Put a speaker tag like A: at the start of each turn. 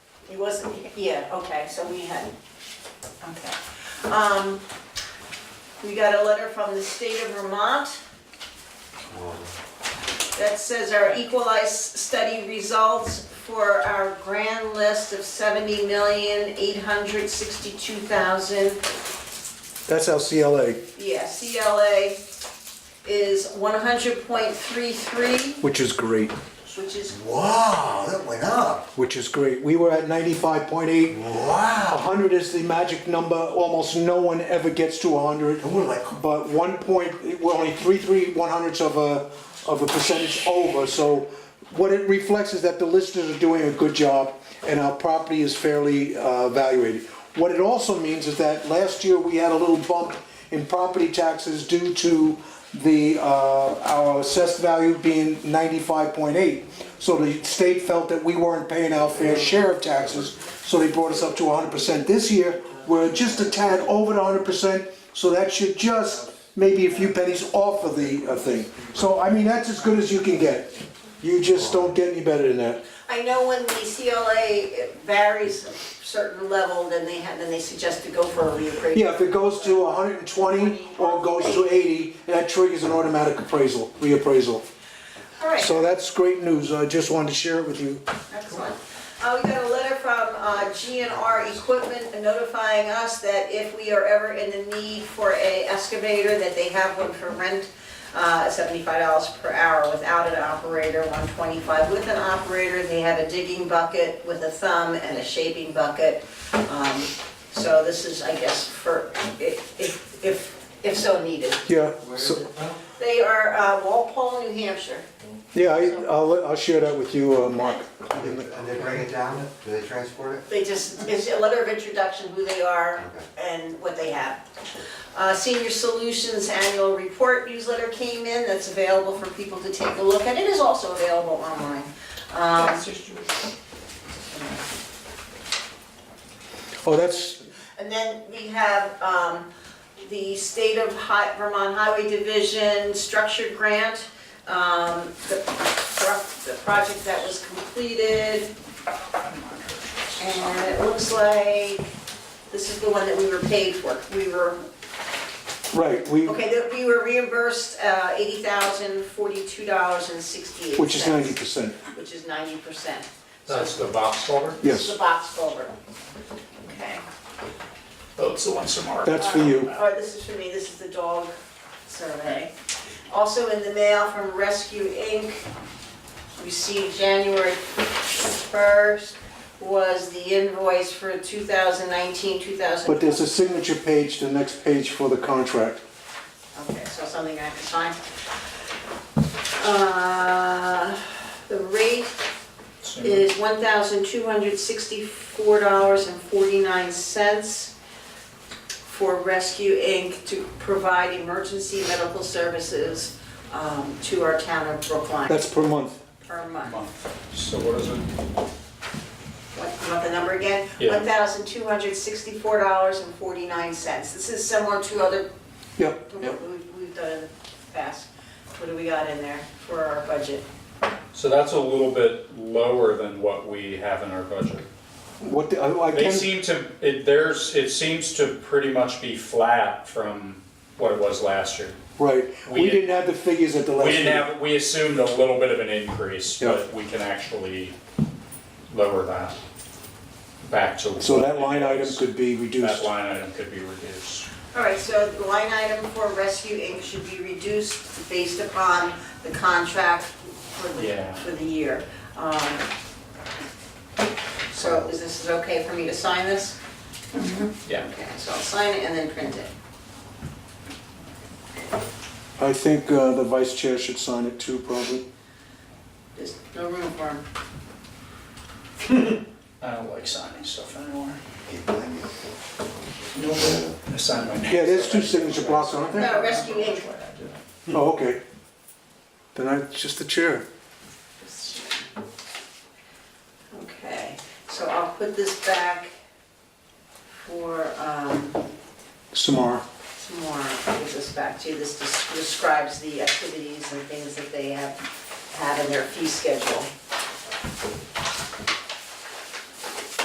A: He wasn't, yeah, okay, so we had, okay. Um, we got a letter from the state of Vermont that says our equalized study results for our grand list of seventy million, eight hundred sixty-two thousand
B: That's our CLA,
A: Yeah, CLA is 100.33,
B: which is great,
A: which is,
C: Wow, that went up.
B: which is great. We were at 95.8.
C: Wow.
B: 100 is the magic number. Almost no one ever gets to 100.
C: And we're like,
B: But one point, we're only three, three, one hundredths of a, of a percentage over. So what it reflects is that the listeners are doing a good job and our property is fairly uh, evaluated. What it also means is that last year we had a little bump in property taxes due to the, uh, our assessed value being ninety-five point eight. So the state felt that we weren't paying our fair share of taxes, so they brought us up to hundred percent this year. We're just a tad over the hundred percent, so that should just maybe a few pennies off of the uh, thing. So, I mean, that's as good as you can get. You just don't get any better than that.
A: I know when the CLA varies a certain level, then they have, then they suggest to go for a reappraisal.
B: Yeah, if it goes to 120 or goes to 80, that triggers an automatic appraisal, reappraisal.
A: All right,
B: So that's great news. I just wanted to share it with you.
A: excellent. Uh, we got a letter from uh, GNR Equipment notifying us that if we are ever in the need for a excavator, that they have one for rent, uh, seventy-five dollars per hour without an operator, one twenty-five with an operator. They have a digging bucket with a thumb and a shaping bucket. Um, So this is, I guess, for, i- if, if, if so needed.
B: Yeah,
C: where is
B: so,
C: it from?
A: They are uh, Walpole, New Hampshire.
B: yeah, I- I'll, I'll share that with you, uh, Mark.
C: And they- and they bring it down? Do they transport it?
A: They just, it's a letter of introduction, who they are and what they have. Uh, Senior Solutions Annual Report newsletter came in, that's available for people to take a look at. It is also available online. Um,
B: Oh, that's,
A: And then we have um, the State of Hi- Vermont Highway Division Structured Grant, um, the pro- the project that was completed. And it looks like this is the one that we were paid for. We were,
B: right, we,
A: okay, that we were reimbursed uh, $80,042.68.
B: which is 90%.
A: Which is 90%.
D: That's the box culvert?
A: This is
B: Yes,
A: the box culvert. Okay. Um,
D: Oh, it's the one Samara.
B: that's for you.
A: All right, this is for me, this is the dog survey. Also in the mail from Rescue Inc., received January 1st, was the invoice for 2019, 2000.
B: But there's a signature page, the next page for the contract.
A: Okay, so something I have to sign. Uh, The rate is $1,264.49 for Rescue Inc. to provide emergency medical services um, to our town of Brookline
B: That's per month.
A: per month.
D: So what is it?
A: What, you want the number again?
D: Yeah.
A: $1,264.49. This is similar to other
B: Yep.
A: We've we've done in the past. What do we got in there for our budget?
D: So that's a little bit lower than what we have in our budget.
B: What, the- I I
D: They
B: can,
D: seem to, it, there's, it seems to pretty much be flat from what it was last year.
B: right,
D: we
B: we didn't have the figures at the last
D: We
B: meeting.
D: didn't have, we assumed a little bit of an increase,
B: Yeah.
D: but we can actually lower that back to.
B: So
D: what
B: that
D: it
B: line item
D: is.
B: could be
D: That
B: reduced.
D: line item could be reduced.
A: All right, so the line item for Rescue Inc. should be reduced based upon the contract for the,
D: Yeah.
A: for the year. Um, So is this is okay for me to sign this?
D: Yeah.
A: Okay, so I'll sign it and then print it.
B: I think uh, the vice chair should sign it too, probably.
A: There's no room for them.
D: I don't like signing stuff anymore.
C: Can't blame you.
D: I signed my name.
B: Yeah, there's two signature blocks, aren't there?
A: No, Rescue Inc.
B: Oh, okay. Then I, it's just the chair.
A: Okay, so I'll put this back for, um,
B: Samara.
A: Some more, I'll give this back to you, this des- describes the activities and things that they have had in their fee schedule.